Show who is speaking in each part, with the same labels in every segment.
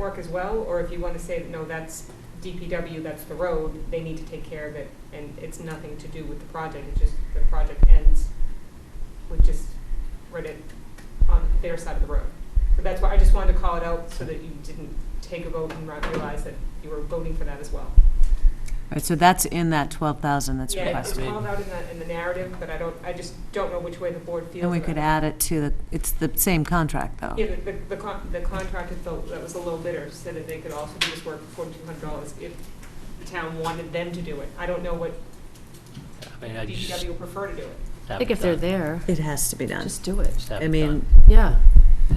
Speaker 1: sidewalk as well, or if you want to say, no, that's DPW, that's the road, they need to take care of it, and it's nothing to do with the project, it's just the project ends with just right at, on their side of the road. So that's why I just wanted to call it out so that you didn't take a vote and not realize that you were voting for that as well.
Speaker 2: Right, so that's in that 12,000 that's
Speaker 1: Yeah, it's
Speaker 2: requested.
Speaker 1: called out in the, in the narrative, but I don't, I just don't know which way the board feels.
Speaker 2: And we
Speaker 1: about
Speaker 2: could
Speaker 1: it.
Speaker 2: add it to the, it's the same contract, though.
Speaker 1: Yeah, the, the, the con- the contractor felt that was a little bitter, said that they could also do this work for forty-two hundred dollars if the town wanted them to do it. I don't know what
Speaker 3: I mean, I just
Speaker 1: DPW would prefer to do it.
Speaker 3: have
Speaker 4: I think
Speaker 3: it
Speaker 4: if they're
Speaker 3: done.
Speaker 4: there,
Speaker 2: It has to be done.
Speaker 4: just do it.
Speaker 3: Just have
Speaker 2: I
Speaker 3: it
Speaker 2: mean,
Speaker 4: Yeah,
Speaker 3: done.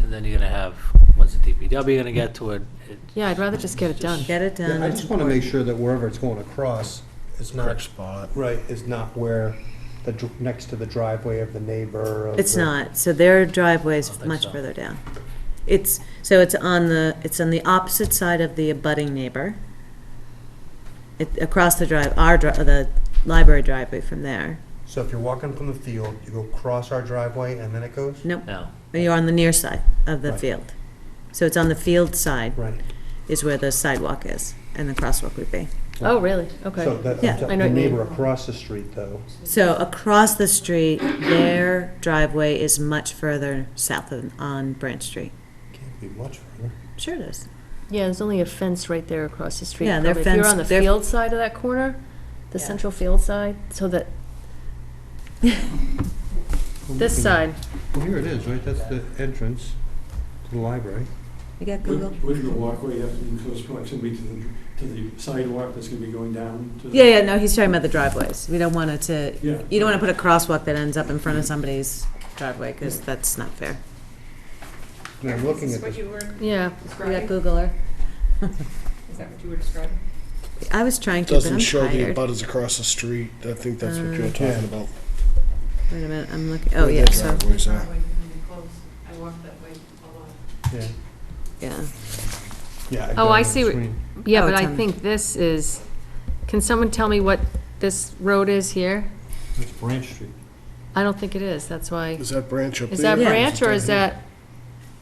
Speaker 3: And then you're gonna have, when's the DPW gonna get to it? It-
Speaker 4: yeah, I'd rather just get it done.
Speaker 2: get it done.
Speaker 5: I just want to make sure that wherever it's going across is
Speaker 6: correct
Speaker 5: not,
Speaker 6: spot.
Speaker 5: right, is not where, the dr- next to the driveway of the neighbor. of
Speaker 2: It's
Speaker 5: the-
Speaker 2: not, so their driveway's
Speaker 3: don't think
Speaker 2: much
Speaker 3: so.
Speaker 2: further down. It's, so it's on the, it's on the opposite side of the abutting neighbor. It, across the drive, our, dri- the library driveway from there.
Speaker 5: So if you're walking from the field, you go across our driveway and then it goes?
Speaker 2: Nope,
Speaker 3: No,
Speaker 2: you're on the near side of the
Speaker 5: Right.
Speaker 2: field. So it's on the field side
Speaker 5: Right.
Speaker 2: is where the sidewalk is, and the crosswalk would be.
Speaker 4: Oh, really?
Speaker 5: So
Speaker 4: Okay.
Speaker 5: that,
Speaker 2: Yeah.
Speaker 5: the
Speaker 4: I know what
Speaker 5: the
Speaker 4: you mean.
Speaker 5: neighbor across the street though,
Speaker 2: So across the street, their driveway is much further south of, on Branch Street.
Speaker 5: can't be much further.
Speaker 2: Sure it is.
Speaker 4: Yeah, there's only a fence right there across the street.
Speaker 2: Yeah, they're
Speaker 4: Probably If you're
Speaker 2: fenced-
Speaker 4: on the
Speaker 2: they're-
Speaker 4: field side of that corner, the
Speaker 2: Yeah.
Speaker 4: central field side, so that,
Speaker 5: Mm-hmm.
Speaker 4: this side,
Speaker 5: Well, here it is, right, that's the entrance to the library.
Speaker 2: You got Google?
Speaker 7: Where's your walkway, you have to be in close proximity to the, to the sidewalk that's gonna be going down to the.
Speaker 2: Yeah, yeah, no, he's talking about the driveways. We don't want it to,
Speaker 7: Yeah.
Speaker 2: you don't want to put a crosswalk that ends up in front of somebody's driveway, because that's not fair.
Speaker 5: And I'm looking
Speaker 1: Is
Speaker 5: at
Speaker 1: this what
Speaker 5: this,
Speaker 1: you were
Speaker 4: yeah.
Speaker 2: You got
Speaker 1: describing?
Speaker 2: Googler?
Speaker 1: Is that what you were describing?
Speaker 2: I was trying to, but
Speaker 6: Doesn't
Speaker 2: I'm
Speaker 6: show the
Speaker 2: tired. Uh, Wait
Speaker 6: abutters across the street. I think that's what you were talking about.
Speaker 2: a minute, I'm looking, oh,
Speaker 6: Where
Speaker 2: yeah,
Speaker 6: their
Speaker 2: so,
Speaker 6: driveways are.
Speaker 5: yeah.
Speaker 2: yeah.
Speaker 5: Yeah,
Speaker 4: Oh,
Speaker 5: got
Speaker 4: I
Speaker 5: it on
Speaker 4: see
Speaker 5: the
Speaker 4: what-
Speaker 5: screen.
Speaker 4: Yeah,
Speaker 2: Oh,
Speaker 4: but
Speaker 2: it's
Speaker 4: I
Speaker 2: on-
Speaker 4: think this is, can someone tell me what this road is here?
Speaker 5: That's Branch Street.
Speaker 4: I don't think it is, that's why.
Speaker 6: Is that branch up there?
Speaker 4: Is that
Speaker 2: Yeah.
Speaker 4: branch, or is that,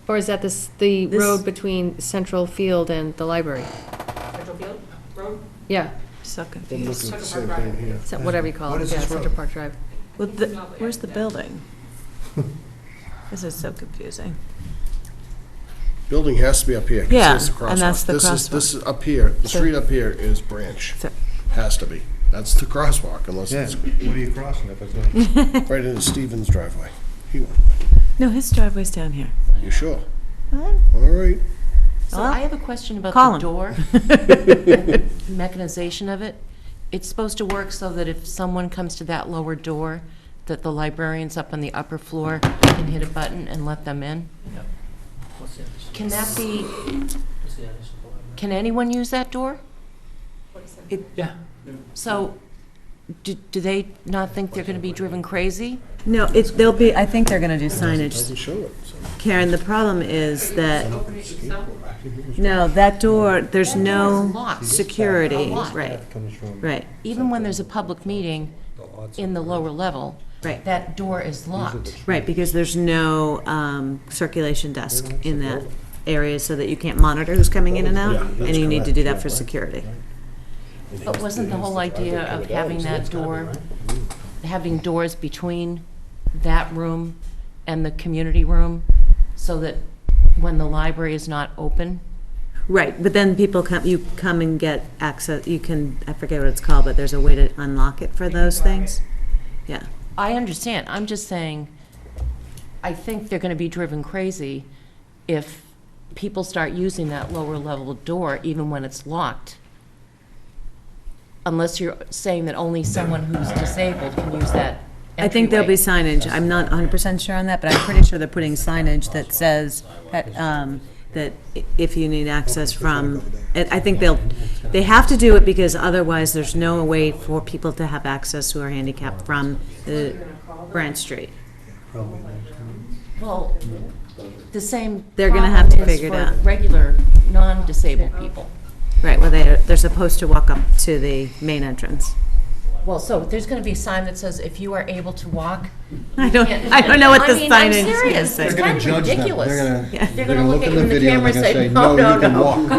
Speaker 4: or is that this, the
Speaker 2: This-
Speaker 4: road between Central Field and the library?
Speaker 1: Central Field Road?
Speaker 4: Yeah,
Speaker 2: So
Speaker 6: I'm
Speaker 2: confused.
Speaker 6: looking at the same thing here.
Speaker 4: so- whatever you call
Speaker 5: What
Speaker 4: it,
Speaker 5: is
Speaker 4: yeah,
Speaker 5: this
Speaker 4: Central
Speaker 5: road?
Speaker 4: Park Drive.
Speaker 2: Well,
Speaker 1: He's
Speaker 2: the,
Speaker 1: not there.
Speaker 2: where's the building? This is so confusing.
Speaker 6: Building has to be up here. 'cause
Speaker 2: Yeah,
Speaker 6: it's the
Speaker 2: and that's
Speaker 6: crosswalk.
Speaker 2: the
Speaker 6: This is,
Speaker 2: crosswalk.
Speaker 6: this is up here. The
Speaker 2: So-
Speaker 6: street up here is branch.
Speaker 2: So-
Speaker 6: Has to be. That's the crosswalk unless
Speaker 5: Yeah,
Speaker 6: it's
Speaker 5: what are you crossing if it's not?
Speaker 6: right into Stevens' driveway. He-
Speaker 2: No, his driveway's down here.
Speaker 6: You sure? All right.
Speaker 8: So
Speaker 2: Well,
Speaker 8: I have a question about
Speaker 2: call
Speaker 8: the
Speaker 2: him.
Speaker 8: door. Mechanization of it. It's supposed to work so that if someone comes to that lower door, that the librarians up on the upper floor can hit a button and let them in?
Speaker 3: what's the address?
Speaker 8: Can that be,
Speaker 3: What's the address of the library?
Speaker 8: can anyone use that door?
Speaker 1: What is that?
Speaker 3: Yeah.
Speaker 8: So do, do they not think they're going to be driven crazy?
Speaker 2: No, it's, they'll be, I think they're gonna do signage.
Speaker 6: Doesn't show it. so-
Speaker 2: Karen, the problem is that, no, that door, there's no
Speaker 8: Locked.
Speaker 2: security,
Speaker 8: A lot.
Speaker 2: right,
Speaker 5: That comes from
Speaker 2: right,
Speaker 8: Even when there's a public meeting
Speaker 5: the odds.
Speaker 8: in the lower level,
Speaker 2: right.
Speaker 8: that door is locked.
Speaker 2: Right, because there's no um, circulation desk in that area, so that you can't monitor who's coming in and out,
Speaker 6: Yeah,
Speaker 2: and
Speaker 6: that's
Speaker 2: you need to
Speaker 6: correct,
Speaker 2: do that
Speaker 6: yeah,
Speaker 2: for
Speaker 6: right,
Speaker 2: security.
Speaker 8: But wasn't the whole idea of having that door, having doors between that room and the community room, so that when the library is not open?
Speaker 2: Right, but then people come, you come and get access, you can, I forget what it's called, but there's a way to unlock it for those things? Yeah,
Speaker 8: I understand, I'm just saying, I think they're gonna be driven crazy if people start using that lower level door even when it's locked. Unless you're saying that only someone who's disabled can use that
Speaker 2: I think there'll be
Speaker 8: entryway.
Speaker 2: signage, I'm not hundred percent sure on that, but I'm pretty sure they're putting signage that says that, um, that i- if you need access from, I I think they'll, they have to do it because otherwise there's no way for people to have access who are handicapped from the Branch Street.
Speaker 8: Well, the same.
Speaker 2: They're gonna have to
Speaker 8: problem is
Speaker 2: figure it out.
Speaker 8: For regular, non-disabled people.
Speaker 2: Right, well, they're, they're supposed to walk up to the main entrance.
Speaker 8: Well, so there's gonna be a sign that says, if you are able to walk.
Speaker 2: I don't, I don't know what the
Speaker 8: I mean, I'm
Speaker 2: signage is.
Speaker 8: serious.
Speaker 2: gonna say.
Speaker 8: It's
Speaker 6: They're
Speaker 8: kind
Speaker 6: gonna
Speaker 8: of
Speaker 6: judge them.
Speaker 8: ridiculous.
Speaker 5: They're gonna,
Speaker 2: Yeah.
Speaker 5: they're gonna look at the
Speaker 8: you in the
Speaker 5: video and
Speaker 8: camera
Speaker 5: they're
Speaker 8: and
Speaker 5: gonna say,
Speaker 8: say,
Speaker 5: no,
Speaker 8: no,
Speaker 5: you
Speaker 8: no,
Speaker 5: can
Speaker 8: no.
Speaker 5: walk.